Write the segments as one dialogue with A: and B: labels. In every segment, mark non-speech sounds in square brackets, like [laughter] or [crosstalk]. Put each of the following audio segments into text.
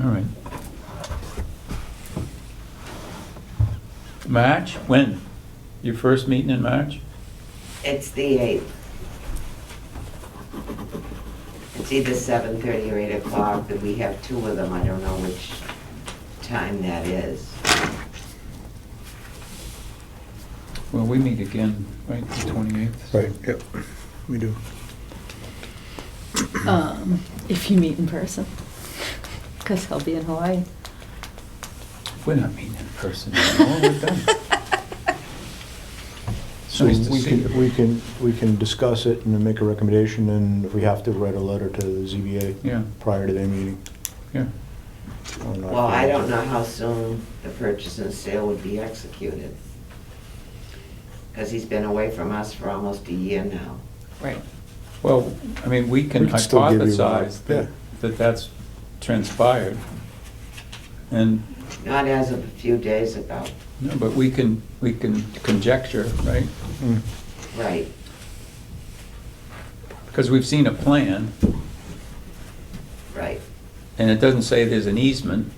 A: all right. March, when? Your first meeting in March?
B: It's the eighth. It's either seven thirty or eight o'clock, but we have two of them, I don't know which time that is.
A: Well, we meet again, right, the 28th?
C: Right, yep, we do.
D: Um, if you meet in person, [laughs] because he'll be in Hawaii.
A: We're not meeting in person anymore, we're done. [laughs] It's
C: So
A: nice to
C: we
A: see
C: can, we
A: you.
C: can, we can discuss it and then make a recommendation, and if we have to, write a letter to the ZBA
A: Yeah,
C: prior to their meeting.
A: yeah.
C: or not.
B: Well, I don't know how soon the purchase and sale would be executed. Because he's been away from us for almost a year now.
D: [laughs] Right.
A: Well, I mean, we can
C: We can still give you a-
A: hypothesize
C: yeah.
A: that, that that's transpired. And,
B: Not as of a few days ago,
A: no, but we can, we can conjecture, right?
C: Mm.
B: right.
A: Because we've seen a plan,
B: Right.
A: and it doesn't say there's an easement,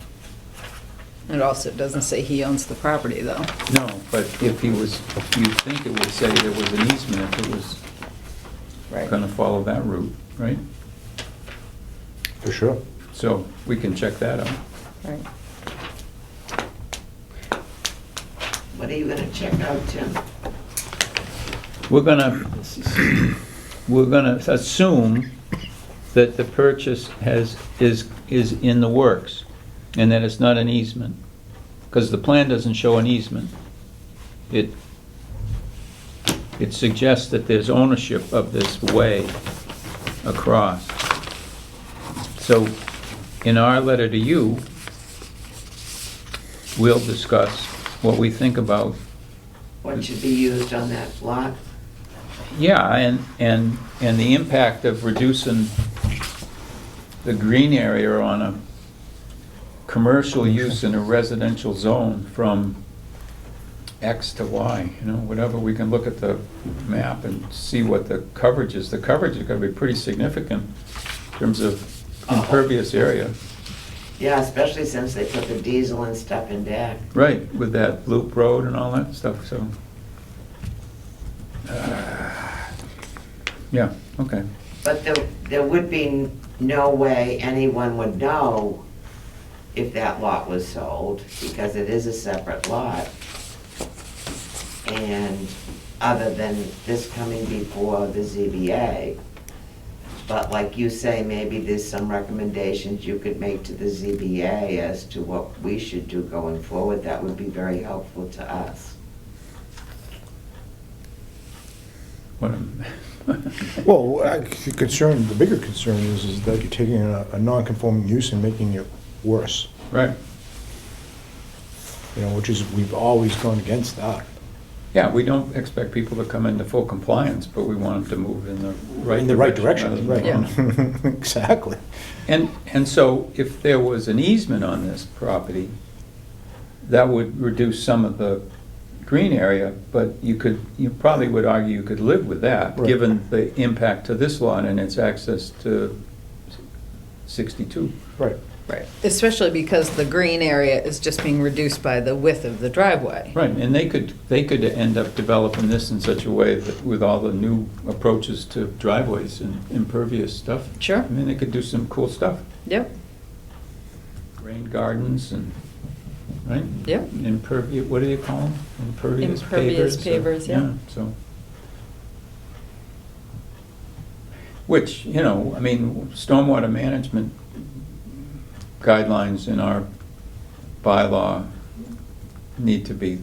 E: It also doesn't say he owns the property, though.
A: no, but if he was, you think it would say there was an easement if it was gonna follow that route, right?
C: For sure.
A: So, we can check that out.
D: Right.
B: What are you gonna check out, Tim?
A: We're gonna, we're gonna assume that the purchase has, is, is in the works, and that it's not an easement, because the plan doesn't show an easement. It, it suggests that there's ownership of this way across. So, in our letter to you, we'll discuss what we think about
B: What should be used on that lot?
A: Yeah, and, and, and the impact of reducing the green area on a commercial use in a residential zone from X to Y, you know, whatever, we can look at the map and see what the coverage is. The coverage is gonna be pretty significant in terms of impervious area.
B: Yeah, especially since they put the diesel and stuff in back.
A: Right, with that loop road and all that stuff, so. Uh, Yeah, okay.
B: But there, there would be no way anyone would know if that lot was sold, because it is a separate lot. And other than this coming before the ZBA. But like you say, maybe there's some recommendations you could make to the ZBA as to what we should do going forward. That would be very helpful to us.
A: What am-
C: Well, I- the concern, the bigger concern is, is that you're taking a, a non-conforming use and making it worse,
A: Right,
C: you know, which is, we've always gone against that.
A: yeah, we don't expect people to come into full compliance, but we want them to move in the uh, right.
C: In the right
A: rather
C: direction, right.
A: than wrong.
C: [laughs] Exactly.
A: And, and so if there was an easement on this property, that would reduce some of the green area, but you could, you probably would argue you could live with that,
C: Right.
A: given the impact to this lot and its access to 62.
C: Right.
E: Right. Especially because the green area is just being reduced by the width of the driveway.
A: Right, and they could, they could end up developing this in such a way that with all the new approaches to driveways and impervious stuff.
E: Sure.
A: I mean, they could do some cool stuff,
E: Yep,
A: rain gardens and, right?
E: Yep.
A: Impervious, what do you call them? Impervious pavers.
D: Impervious
A: or-
D: pavers, yeah.
A: So. Which, you know, I mean, stormwater management guidelines in our bylaw need to be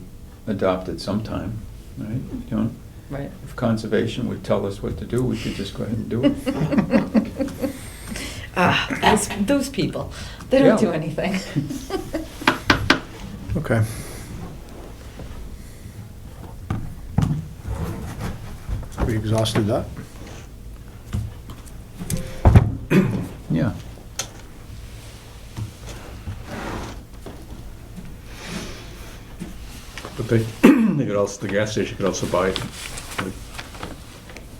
A: adopted sometime, right? You know,
E: right.
A: if conservation would tell us what to do, we could just go ahead
D: [laughs]
A: and do it.
E: [laughs] Ah, those, those people, they don't
A: Yeah.
E: do anything. [laughs]
C: Okay. We exhausted that?
A: Yeah.
F: But they, they could also, the gas station could also buy